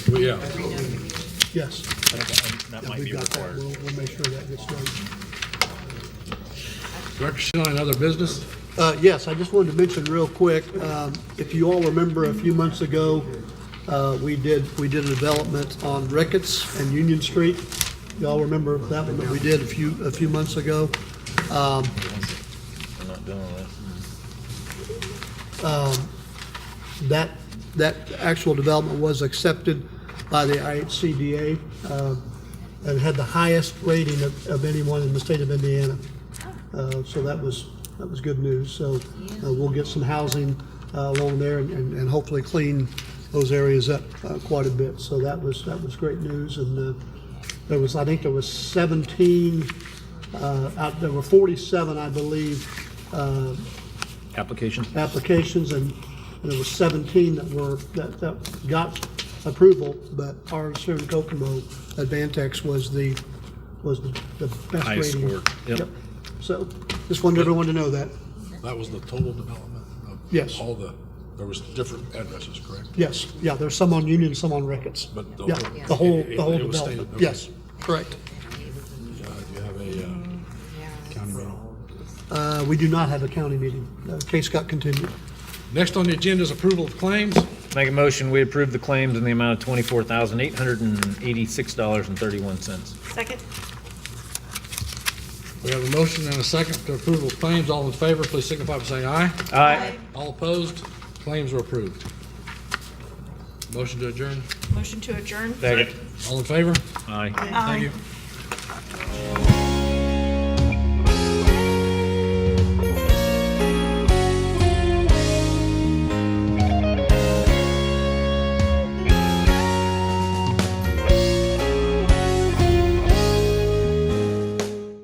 Well, yeah, Yes. I don't- That might We've be got that. required. We'll, we'll make sure that gets done. direction on other business? Uh, Yes, I just wanted to mention real quick, um, if you all remember a few months ago, uh, we did, we did a development on Ricketts and Union Street. Y'all remember that one that we did a few, a few months ago? Um, I'm not doing that. That, that actual development was accepted by the IHCDA uh, and had the highest rating of of anyone in the state of Indiana. Uh, So that was, that was good news. So uh, we'll get some housing uh, along there and- and and hopefully clean those areas up uh, quite a bit. So that was, that was great news. And uh, there was, I think there was 17, uh, out- there were 47, I believe, uh, Application? applications, and there was 17 that were, that, that got approval, but ours here in Kokomo, Advantex was the, was the the best Highest rating. score, yep. So, just wanted everyone to know that. That was the total development of Yes. all the, there was different addresses, correct? Yes, yeah, there's some on Union, some on Ricketts. But the Yeah, whole- the whole, it- the whole it was stated, okay. development, yes, correct. Uh, Do you have a uh, county rental? Uh, we do not have a county meeting. Uh, Case got continued. Next on the agenda is approval of claims. Make a motion, we approve the claims in the amount of twenty-four thousand, eight hundred and eighty-six dollars and thirty-one cents. Second? We have a motion and a second to approval of claims. All in favor, please signify by saying aye. Aye. All opposed, claims are approved. Motion to adjourn. Motion to adjourn? Second. All in favor? Aye. Thank you.